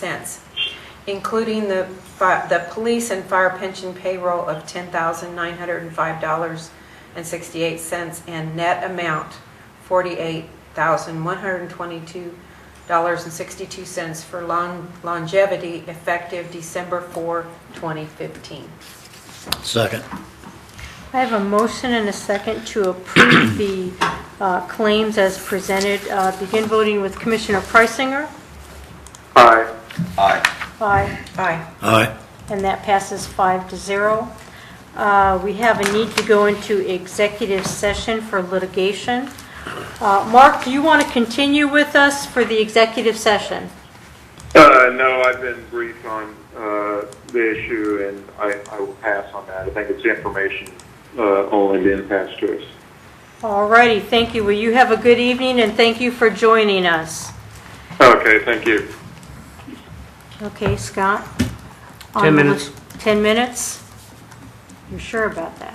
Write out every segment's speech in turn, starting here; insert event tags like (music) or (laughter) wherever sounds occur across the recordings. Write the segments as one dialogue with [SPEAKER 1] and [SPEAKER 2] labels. [SPEAKER 1] cents, including the, fi- the police and fire pension payroll of ten thousand nine hundred and five dollars and sixty-eight cents, and net amount forty-eight thousand one hundred and twenty-two dollars and sixty-two cents for lon- longevity effective December 4, 2015.
[SPEAKER 2] Second.
[SPEAKER 3] I have a motion and a second to approve the uh, claims as presented. Uh, Begin voting with Commissioner Preisinger.
[SPEAKER 4] Aye.
[SPEAKER 5] Aye.
[SPEAKER 3] Aye.
[SPEAKER 1] Aye.
[SPEAKER 2] Aye.
[SPEAKER 3] And that passes five to zero. Uh, We have a need to go into executive session for litigation. Uh, Mark, do you want to continue with us for the executive session?
[SPEAKER 4] Uh, no, I've been brief on, uh, the issue and I, I will pass on that. I think it's information, uh, only being passed to us.
[SPEAKER 3] All righty, thank you. Well, you have a good evening, and thank you for joining us.
[SPEAKER 4] Okay, thank you.
[SPEAKER 3] Okay, Scott?
[SPEAKER 6] 10 minutes.
[SPEAKER 3] 10 minutes? You're sure about that?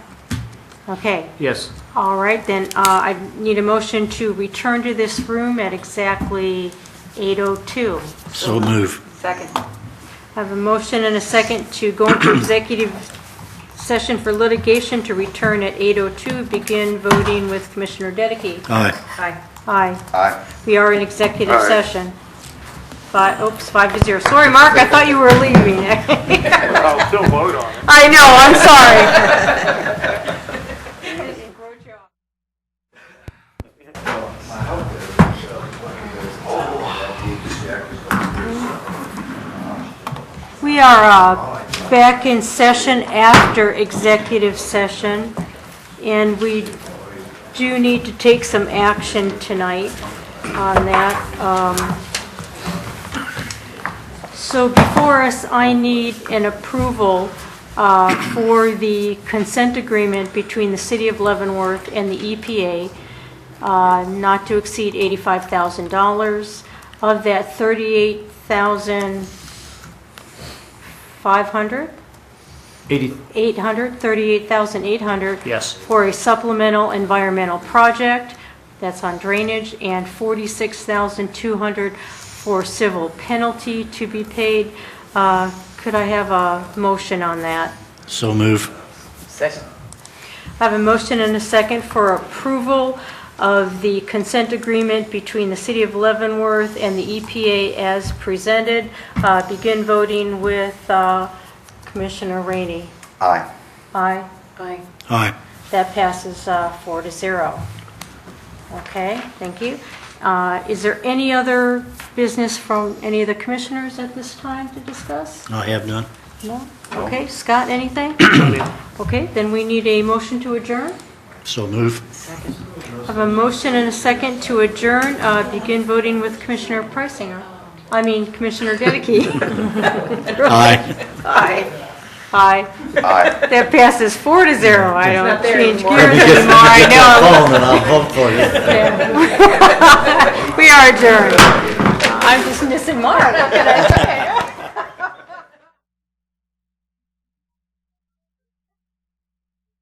[SPEAKER 3] Okay,
[SPEAKER 6] Yes.
[SPEAKER 3] all right, then uh, I need a motion to return to this room at exactly 8:02.
[SPEAKER 2] So move.
[SPEAKER 1] Second.
[SPEAKER 3] I have a motion and a second to go into executive session for litigation to return at 8:02. Begin voting with Commissioner Dedekey.
[SPEAKER 2] Aye.
[SPEAKER 1] Aye.
[SPEAKER 3] Aye.
[SPEAKER 5] Aye.
[SPEAKER 3] We are in executive
[SPEAKER 4] Aye.
[SPEAKER 3] session. Five, oops, five to zero. Sorry, Mark, I thought you were leaving. (laughs)
[SPEAKER 4] I'll still vote on it.
[SPEAKER 3] I know, I'm sorry. We are uh, back in session after executive session, and we do need to take some action tonight on that. Um, so before us, I need an approval uh, for the consent agreement between the City of Leavenworth and the EPA, uh, not to exceed $85,000. Of that, 38,500,
[SPEAKER 6] 80,
[SPEAKER 3] 800, 38,800.
[SPEAKER 6] Yes.
[SPEAKER 3] For a supplemental environmental project, that's on drainage, and 46,200 for civil penalty to be paid. Uh, Could I have a motion on that?
[SPEAKER 2] So move.
[SPEAKER 1] Second.
[SPEAKER 3] I have a motion and a second for approval of the consent agreement between the City of Leavenworth and the EPA as presented. Uh, Begin voting with uh, Commissioner Rainey.
[SPEAKER 5] Aye.
[SPEAKER 3] Aye.
[SPEAKER 1] Aye.
[SPEAKER 2] Aye.
[SPEAKER 3] That passes uh, four to zero. Okay, thank you. Uh, Is there any other business from any of the commissioners at this time to discuss?
[SPEAKER 2] I have none.
[SPEAKER 3] No? Okay, Scott, anything? Okay, then we need a motion to adjourn.
[SPEAKER 2] So move.
[SPEAKER 1] Second.
[SPEAKER 3] I have a motion and a second to adjourn. Uh, Begin voting with Commissioner Priceinger. I mean Commissioner Dedekey.
[SPEAKER 2] Aye.
[SPEAKER 1] (laughs)
[SPEAKER 3] (laughs)
[SPEAKER 1] Aye.
[SPEAKER 3] Aye.
[SPEAKER 5] Aye.
[SPEAKER 3] That passes four to zero. I don't
[SPEAKER 1] not there
[SPEAKER 3] change
[SPEAKER 1] anymore.
[SPEAKER 3] gears
[SPEAKER 2] Get
[SPEAKER 3] anymore. I know.
[SPEAKER 2] that phone and I'll vote for you.
[SPEAKER 3] We are adjourned. I'm just missing Mark.